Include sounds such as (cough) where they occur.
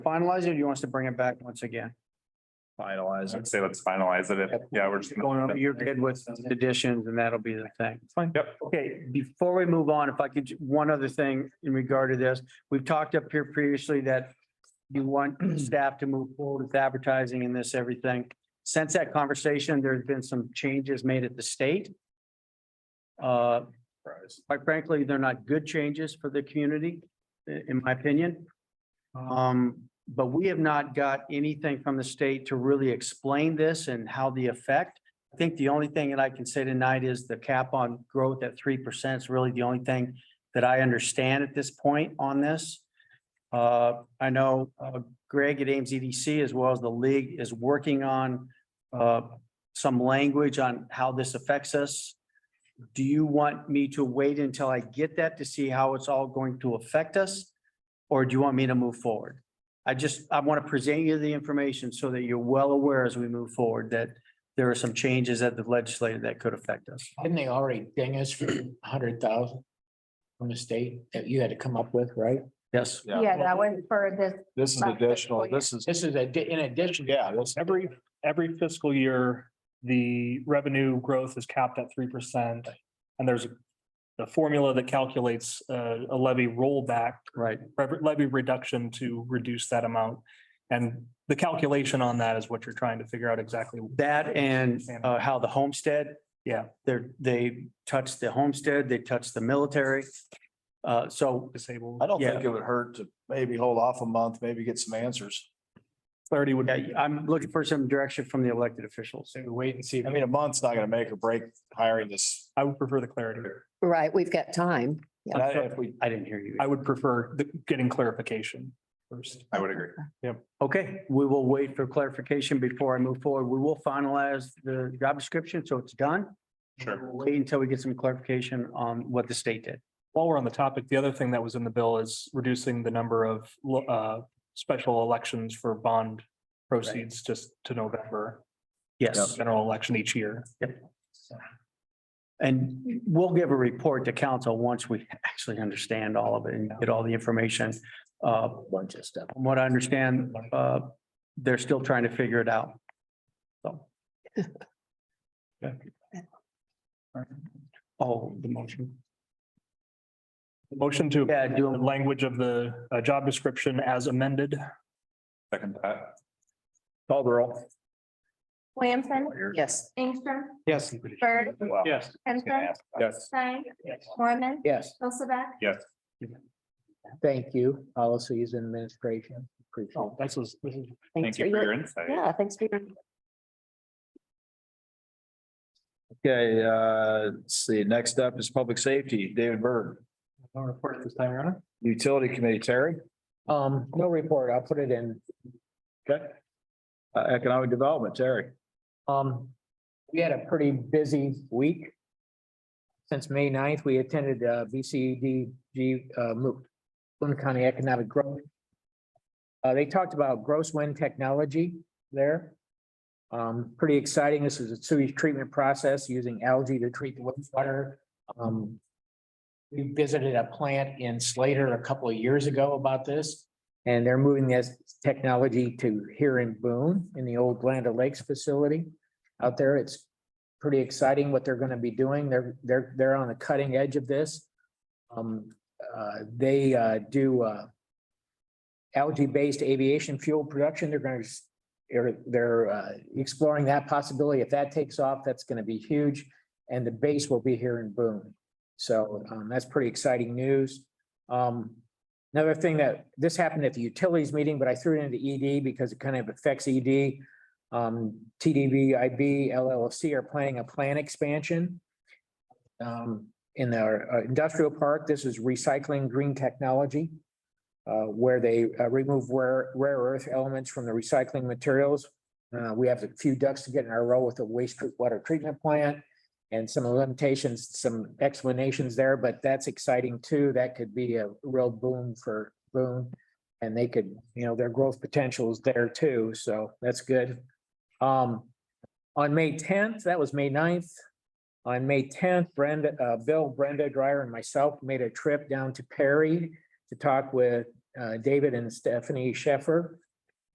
finalize it, or you want us to bring it back once again? Finalize. I'd say let's finalize it. If- Yeah, we're just. Going over your good with additions and that'll be the thing. Fine. Yep. Okay, before we move on, if I could, one other thing in regard to this, we've talked up here previously that (clears throat) you want staff to move forward with advertising and this, everything. Since that conversation, there's been some changes made at the state. Uh, quite frankly, they're not good changes for the community, i- in my opinion. Um, but we have not got anything from the state to really explain this and how the effect. I think the only thing that I can say tonight is the cap on growth at three percent is really the only thing that I understand at this point on this. Uh, I know uh, Greg at Ames EDC as well as the league is working on uh, some language on how this affects us. Do you want me to wait until I get that to see how it's all going to affect us? Or do you want me to move forward? I just, I want to present you the information so that you're well aware as we move forward that there are some changes at the legislature that could affect us. Didn't they already ding us for a hundred thousand? From the state that you had to come up with, right? Yes, Yeah. Yeah, that was for this, This is Last fiscal additional. year. This is, This is a, di- in addition. Yeah, that's every, every fiscal year, the revenue growth is capped at three percent. And there's a formula that calculates uh, a levy rollback, right. rev- levy reduction to reduce that amount. And the calculation on that is what you're trying to figure out exactly. That and uh, how the homestead. Yeah. They're, they touch the homestead, they touch the military. Uh, so Disabled I don't Yeah. think it would hurt to maybe hold off a month, maybe get some answers. clarity would. yeah, I'm looking for some direction from the elected officials. So we wait and see. I mean, a month's not gonna make or break hiring this. I would prefer the clarity. Right, we've got time. And I, if we, I didn't hear you. I would prefer the, getting clarification first. I would agree. Okay, we will wait for clarification before I move forward. We will finalize the job description, so it's done. Sure. We'll Wait until we get some clarification on what the state did. While we're on the topic, the other thing that was in the bill is reducing the number of lo- uh special elections for bond proceeds just to November, Yes, general election each year. and we'll give a report to council once we (laughs) actually understand all of it and get all the information. Uh, Bunch of stuff. from what I understand, uh, they're still trying to figure it out. So. Oh, the motion. Motion to Yeah, the do, language of the uh, job description as amended. Second that. call the roll. Williamson, Yes. Ingstrom, Yes. Bird, Wow. Yes. Henson, Yes. Stein, Yes. Mormon, Yes, Hilsaback. Yes. thank you, policies and administration. Appreciate it. Oh, this is, this is Thank you for your insight. Yeah, thanks for your. okay, uh, let's see, next up is public safety, David Byrd. no report at this time, Your Honor. Utility Committee, Terry, Um, no report. I'll put it in. okay? Uh, Economic Development, Terry. Um, we had a pretty busy week. Since May 9th, we attended uh BCDG uh MOOC, Boone County Economic Growth. Uh, they talked about gross wind technology there. Um, pretty exciting. This is a sewage treatment process using algae to treat the wastewater. Um, we visited a plant in Slater a couple of years ago about this. And they're moving this technology to here in Boone, in the old Glenda Lakes facility out there. It's pretty exciting what they're gonna be doing. They're, they're, they're on the cutting edge of this. Um, uh, they, uh, do, uh, algae-based aviation fuel production. They're gonna, s- they're, they're, uh, exploring that possibility. If that takes off, that's gonna be huge. And the base will be here in Boone. So, um, that's pretty exciting news. Um, Another thing that, this happened at the utilities meeting, but I threw it into ED because it kind of affects E ED. Um, TDVIB LLC are planning a plan expansion. Um, in their uh, industrial park, this is recycling green technology. Uh, where they uh, remove rare, rare earth elements from the recycling materials. Uh, we have a few ducks to get in our row with the wastewater treatment plant. And some limitations, some explanations there, but that's exciting too. That could be a real boom for Boone. And they could, you know, their growth potential is there too, so that's good. Um, on May tenth, that was May 9th. On May tenth, Brenda, uh, Bill, Brenda Dryer and myself made a trip down to Perry to talk with uh, David and Stephanie Sheffer